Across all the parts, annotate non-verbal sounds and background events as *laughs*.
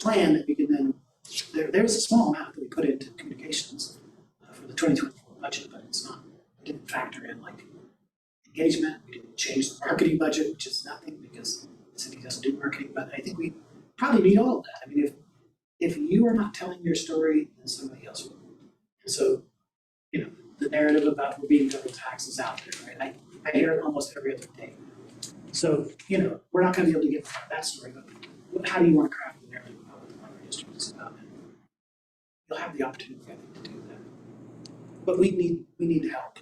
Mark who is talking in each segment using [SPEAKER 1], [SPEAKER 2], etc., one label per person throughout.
[SPEAKER 1] plan that we can then, there, there's a small amount that we put into communications uh, for the twenty twenty-four budget, but it's not, we didn't factor in like engagement, we didn't change the marketing budget, which is nothing because the city doesn't do marketing, but I think we probably need all of that. I mean, if, if you are not telling your story, then somebody else will. And so, you know, the narrative about we're being double taxed is out there, right? I, I hear it almost every other day. So, you know, we're not gonna be able to get that story, but what- how do you wanna craft the narrative about what the library district is about? And You'll have the opportunity, I think, to do that. But we need, we need help.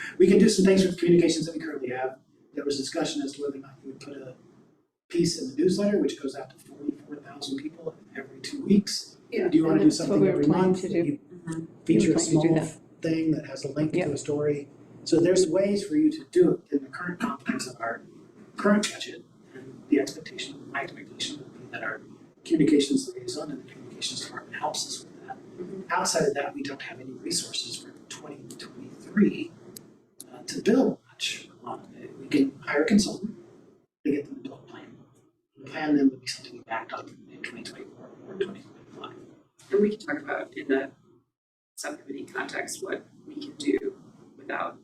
[SPEAKER 1] *laughs* We can do some things with communications that we currently have. There was discussion as to whether or not you would put a piece in the newsletter, which goes out to forty-four thousand people every two weeks.
[SPEAKER 2] Yeah,
[SPEAKER 1] Do you wanna
[SPEAKER 3] and
[SPEAKER 1] do
[SPEAKER 3] that's what
[SPEAKER 1] something
[SPEAKER 3] we were
[SPEAKER 1] every
[SPEAKER 3] planning
[SPEAKER 1] month
[SPEAKER 3] to
[SPEAKER 1] that
[SPEAKER 3] do.
[SPEAKER 1] you
[SPEAKER 3] We were
[SPEAKER 1] feature a
[SPEAKER 3] planning to do
[SPEAKER 1] small
[SPEAKER 3] that.
[SPEAKER 1] thing that has a link
[SPEAKER 3] Yeah.
[SPEAKER 1] to a story? So there's ways for you to do it in the current context of our current budget. And the expectation, my expectation would be that our communications liaison and the communications department helps us with that. Outside of that, we don't have any resources for twenty twenty-three uh, to build much on it. We can hire a consultant to get them to build a plan. The plan then would be something we backed up in twenty twenty-four or twenty twenty-five.
[SPEAKER 2] And we can talk about in the subcommittee context what we can do without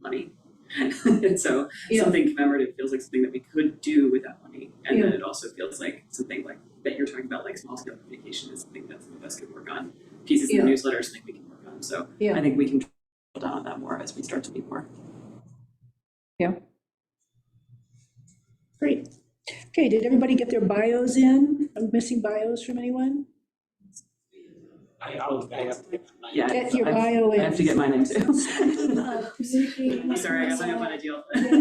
[SPEAKER 2] money. *laughs* And so
[SPEAKER 4] Yeah.
[SPEAKER 2] something commemorative feels like something that we could do without money. And then it also feels like something like that you're talking about, like small scale communication is something that some of us could work on. Pieces in the
[SPEAKER 4] Yeah.
[SPEAKER 2] newsletter is something we can work on. So I
[SPEAKER 4] Yeah.
[SPEAKER 2] think we can drill down on that more as we start to meet more.
[SPEAKER 5] Great. Okay, did everybody get their bios in? I'm missing bios from anyone?
[SPEAKER 6] I, I'll, I have.
[SPEAKER 2] Yeah.
[SPEAKER 5] Get your
[SPEAKER 2] I've-
[SPEAKER 5] bio in.
[SPEAKER 2] I have to
[SPEAKER 5] *laughs*
[SPEAKER 2] get mine in
[SPEAKER 4] *laughs*
[SPEAKER 2] too. *laughs*
[SPEAKER 4] I'm
[SPEAKER 2] I'm sorry, I have my ideal.
[SPEAKER 1] That's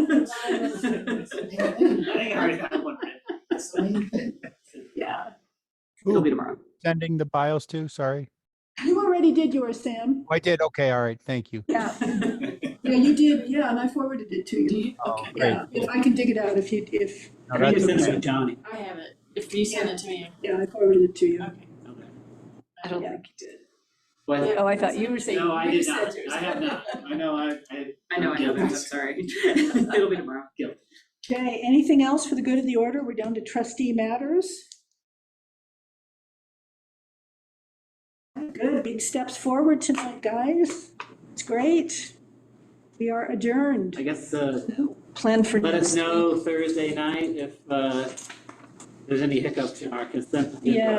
[SPEAKER 1] the main thing.
[SPEAKER 2] Yeah, *laughs* it'll
[SPEAKER 7] Who
[SPEAKER 2] be tomorrow.
[SPEAKER 7] sending the bios to? Sorry.
[SPEAKER 5] You already did yours, Sam.
[SPEAKER 7] Oh, I did. Okay. All right. Thank you.
[SPEAKER 5] Yeah,
[SPEAKER 2] *laughs*
[SPEAKER 5] yeah, you did, yeah, and I forwarded it to you.
[SPEAKER 7] Oh, great.
[SPEAKER 5] Yeah, if I can dig it out, if you, if,
[SPEAKER 7] No,
[SPEAKER 2] I think
[SPEAKER 7] that's
[SPEAKER 2] it's in
[SPEAKER 7] okay.
[SPEAKER 2] St. Johnny.
[SPEAKER 4] I have it. If you send it to me,
[SPEAKER 5] yeah, I forwarded it to you.
[SPEAKER 4] okay.
[SPEAKER 2] Okay.
[SPEAKER 4] I don't
[SPEAKER 5] Yeah.
[SPEAKER 4] think you did.
[SPEAKER 6] Well,
[SPEAKER 3] Oh, I thought you were saying.
[SPEAKER 6] no, I
[SPEAKER 4] you
[SPEAKER 6] did
[SPEAKER 4] said
[SPEAKER 6] not.
[SPEAKER 4] yours.
[SPEAKER 6] I have not. I know, I, I.
[SPEAKER 2] I know, I know, that, I'm sorry. *laughs* It'll be tomorrow.
[SPEAKER 5] Okay, anything else for the good of the order? We're down to trustee matters. Good, big steps forward tonight, guys. It's great. We are adjourned.
[SPEAKER 6] I guess, uh,
[SPEAKER 5] Plan for.
[SPEAKER 6] let us
[SPEAKER 5] next week.
[SPEAKER 6] know Thursday night if, uh, there's any hiccups in our consent. agenda.
[SPEAKER 5] Yeah.